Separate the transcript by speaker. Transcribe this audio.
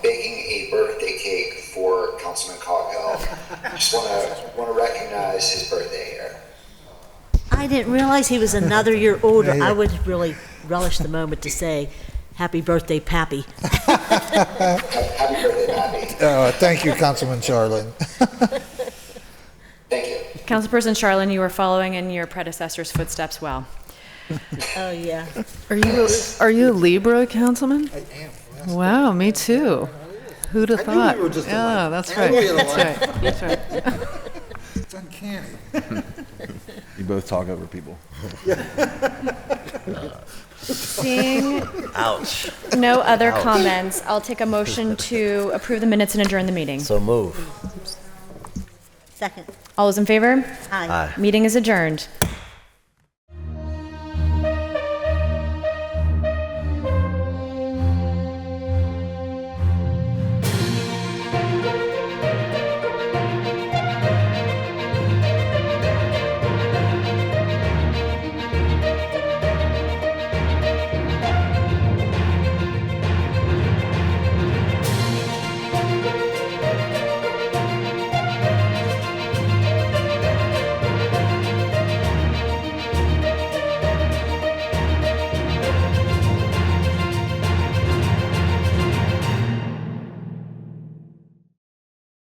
Speaker 1: Just want to, want to recognize his birthday here.
Speaker 2: I didn't realize he was another year older.
Speaker 3: Yeah, yeah.
Speaker 2: I would really relish the moment to say, "Happy birthday, Pappy."
Speaker 1: Happy birthday, Bobby.
Speaker 3: Uh, Thank you, Councilman Charlin.
Speaker 1: Thank you.
Speaker 4: Councilperson Charlin, you are following in your predecessor's footsteps well.
Speaker 2: Oh yeah.
Speaker 5: Are you a, are you a Libra, Councilman? I am. Wow, me too. Who'd have
Speaker 3: knew we
Speaker 5: thought?
Speaker 3: were just
Speaker 5: yeah,
Speaker 3: alike.
Speaker 5: that's
Speaker 3: I
Speaker 5: right.
Speaker 3: knew we were
Speaker 5: That's
Speaker 3: alike.
Speaker 5: right. That's right.
Speaker 3: It's uncanny.
Speaker 6: You both talk over people.
Speaker 4: Seeing no other comments, I'll take a motion to approve the minutes and adjourn the meeting.
Speaker 7: So move.
Speaker 2: Second.
Speaker 4: All those in favor?
Speaker 2: Hi.
Speaker 7: Aye.
Speaker 4: Meeting is adjourned.